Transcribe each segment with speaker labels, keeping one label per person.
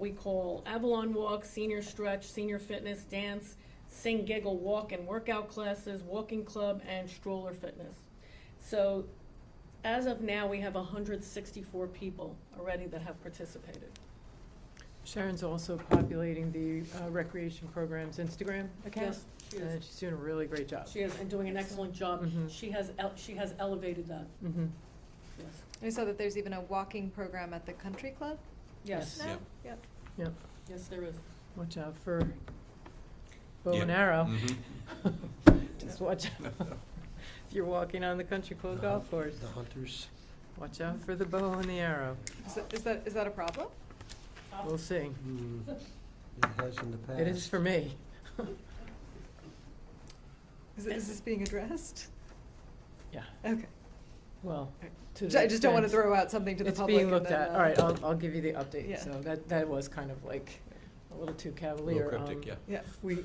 Speaker 1: we call Avalon Walk, Senior Stretch, Senior Fitness, Dance, Sing, Giggle, Walk and Workout Classes, Walking Club, and Stroller Fitness. So as of now, we have hundred sixty-four people already that have participated.
Speaker 2: Sharon's also populating the uh, recreation program's Instagram account.
Speaker 1: Yes, she
Speaker 2: And
Speaker 1: is,
Speaker 2: she's doing a really great job.
Speaker 1: she is, and doing an excellent job.
Speaker 2: Mhm.
Speaker 1: She has, el- she has elevated that,
Speaker 2: Mhm.
Speaker 1: yes.
Speaker 3: I saw that there's even a walking program at the country club.
Speaker 1: Yes,
Speaker 3: No?
Speaker 4: Yep.
Speaker 3: Yep.
Speaker 1: yes, there is.
Speaker 2: Watch out for bow and
Speaker 4: Yeah. Mm-hmm.
Speaker 2: arrow.
Speaker 4: Mhm.
Speaker 2: Just watch out. If you're walking on the country club golf course,
Speaker 5: The hunters.
Speaker 2: watch out for the bow and the arrow.
Speaker 3: Is that, is that, is that a problem?
Speaker 2: We'll see.
Speaker 5: Hmm, It has in the past.
Speaker 2: It is for me.
Speaker 3: Is, it- is this being addressed?
Speaker 2: Yeah,
Speaker 3: Okay.
Speaker 2: well, to
Speaker 3: Ju- I just don't want
Speaker 2: the
Speaker 3: to
Speaker 2: extent-
Speaker 3: throw out something to the
Speaker 2: It's
Speaker 3: public.
Speaker 2: being
Speaker 3: and
Speaker 2: looked
Speaker 3: then,
Speaker 2: at.
Speaker 3: uh,
Speaker 2: All right, I'll, I'll give you the
Speaker 3: Yeah.
Speaker 2: update. So that, that was kind of like a little too
Speaker 4: A little
Speaker 2: cavalier. Um,
Speaker 4: cryptic, yeah.
Speaker 3: Yeah.
Speaker 2: We,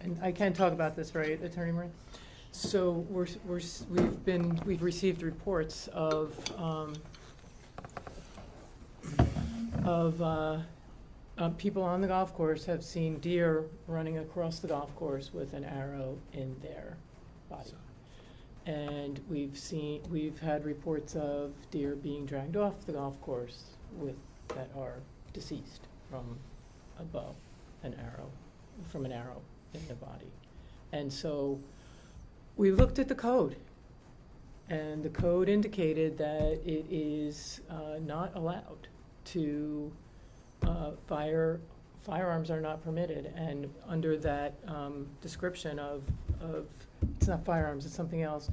Speaker 2: and I can talk about this, right, Attorney Moran? So we're, s- we're, s- we've been, we've received reports of, um, of, uh, uh, people on the golf course have seen deer running across the golf course with an arrow in their body. And we've seen, we've had reports of deer being dragged off the golf course with, that are deceased from a bow, an arrow, from an arrow in the body. And so we looked at the code. And the code indicated that it is uh, not allowed to, uh, fire, firearms are not permitted. And under that um, description of, of, it's not firearms, it's something else,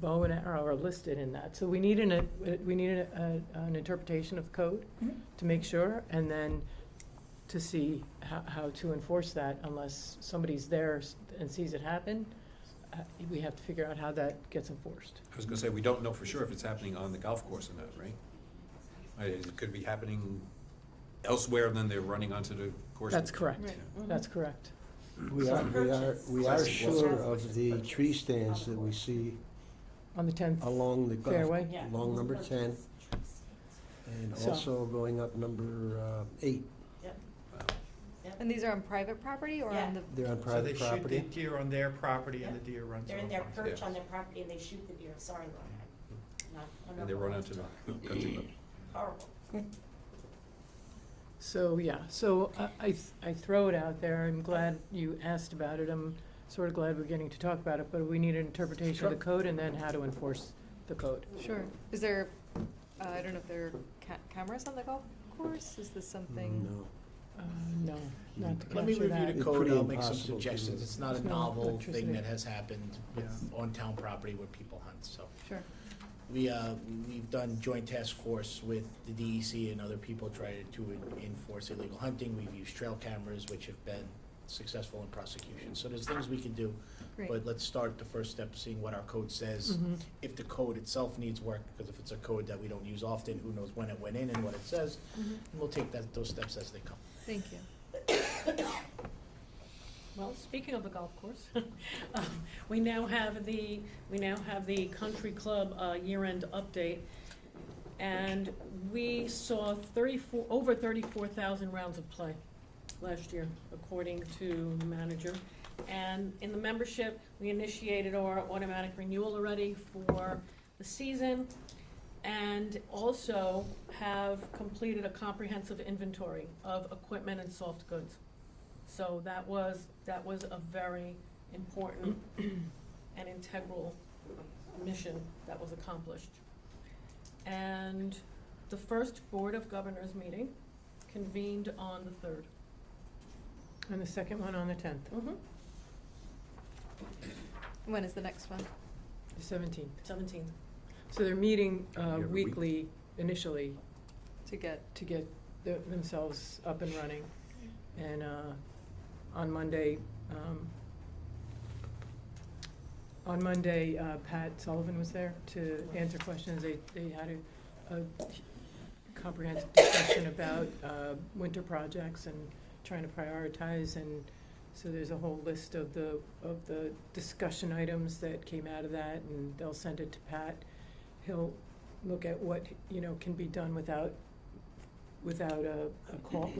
Speaker 2: bow and arrow are listed in that. So we need an, uh, we need a- a- an interpretation of code to make sure, and then to see how, how to enforce that unless somebody's there s- and sees it happen. uh, We have to figure out how that gets enforced.
Speaker 4: I was gonna say, we don't know for sure if it's happening on the golf course or not, right? Uh, It could be happening elsewhere than they're running onto the course.
Speaker 2: That's correct.
Speaker 4: Yeah.
Speaker 2: That's correct.
Speaker 5: We are, we are, we are
Speaker 4: Classic Western.
Speaker 5: sure of the tree stands that we see
Speaker 2: On the tenth,
Speaker 5: along the golf.
Speaker 2: Fairway?
Speaker 5: Along number ten, and
Speaker 2: So-
Speaker 5: also going up number uh, eight,
Speaker 4: Wow.
Speaker 3: And these are on private property or on the?
Speaker 5: they're on
Speaker 6: So they
Speaker 5: private
Speaker 6: shoot the
Speaker 5: property.
Speaker 6: deer on their property and the deer runs
Speaker 7: They're in
Speaker 6: off
Speaker 7: their
Speaker 6: onto
Speaker 7: perch
Speaker 4: Yeah.
Speaker 7: on their property and they shoot the deer, sorry, Lorna. Not- I'm not
Speaker 4: Mm-hmm. And they run
Speaker 7: going
Speaker 4: onto
Speaker 7: to-
Speaker 4: the country club.
Speaker 7: Horrible.
Speaker 2: so, yeah, so I- I, th- I throw it out there. I'm glad you asked about it. I'm sort of glad we're getting to talk about it, but we need an interpretation of the code and then how to enforce the code.
Speaker 3: Sure. Is there, uh, I don't know if there are ca- cameras on the golf course? Is this something?
Speaker 5: No.
Speaker 2: Uh, No, not to
Speaker 8: Let me
Speaker 2: capture
Speaker 8: review
Speaker 2: that.
Speaker 8: the
Speaker 5: It's
Speaker 8: code,
Speaker 5: pretty
Speaker 8: I'll make some
Speaker 5: impossible to
Speaker 8: suggestions,
Speaker 5: do.
Speaker 8: it's not
Speaker 2: It's
Speaker 8: a
Speaker 2: not
Speaker 8: novel
Speaker 2: electricity.
Speaker 8: thing that has happened with-
Speaker 6: Yeah.
Speaker 8: on town property where people hunt, so.
Speaker 3: Sure.
Speaker 8: We, uh, we've done joint task force with the DEC and other people trying to en- enforce illegal hunting, we've used trail cameras, which have been successful in prosecution, so there's things we can do.
Speaker 3: Great.
Speaker 8: But let's start the first step, seeing what our code says,
Speaker 2: Mhm.
Speaker 8: if the code itself needs work, because if it's a code that we don't use often, who knows when it went in and what it says,
Speaker 2: Mm-hmm.
Speaker 3: Mhm.
Speaker 8: and we'll take that, those steps as they come.
Speaker 3: Thank you.
Speaker 1: Well, speaking of the golf course, um, we now have the, we now have the country club uh, year-end update. And we saw thirty-four, over thirty-four thousand rounds of play last year, according to the manager. And in the membership, we initiated our automatic renewal already for the season. And also have completed a comprehensive inventory of equipment and soft goods. So that was, that was a very important and integral mission that was accomplished. And the first Board of Governors meeting convened on the third.
Speaker 2: And the second one on the tenth,
Speaker 3: When is the next one?
Speaker 2: the seventeenth.
Speaker 1: Seventeenth.
Speaker 2: So they're meeting uh,
Speaker 4: Every week.
Speaker 2: weekly initially
Speaker 3: To get,
Speaker 2: to get the- themselves up and running. And uh, on Monday, um, on Monday, uh, Pat Sullivan was there to answer questions. They, they had a, a comprehensive discussion about uh, winter projects and trying to prioritize. And so there's a whole list of the, of the discussion items that came out of that, and they'll send it to Pat. He'll look at what, you know, can be done without without a, a call,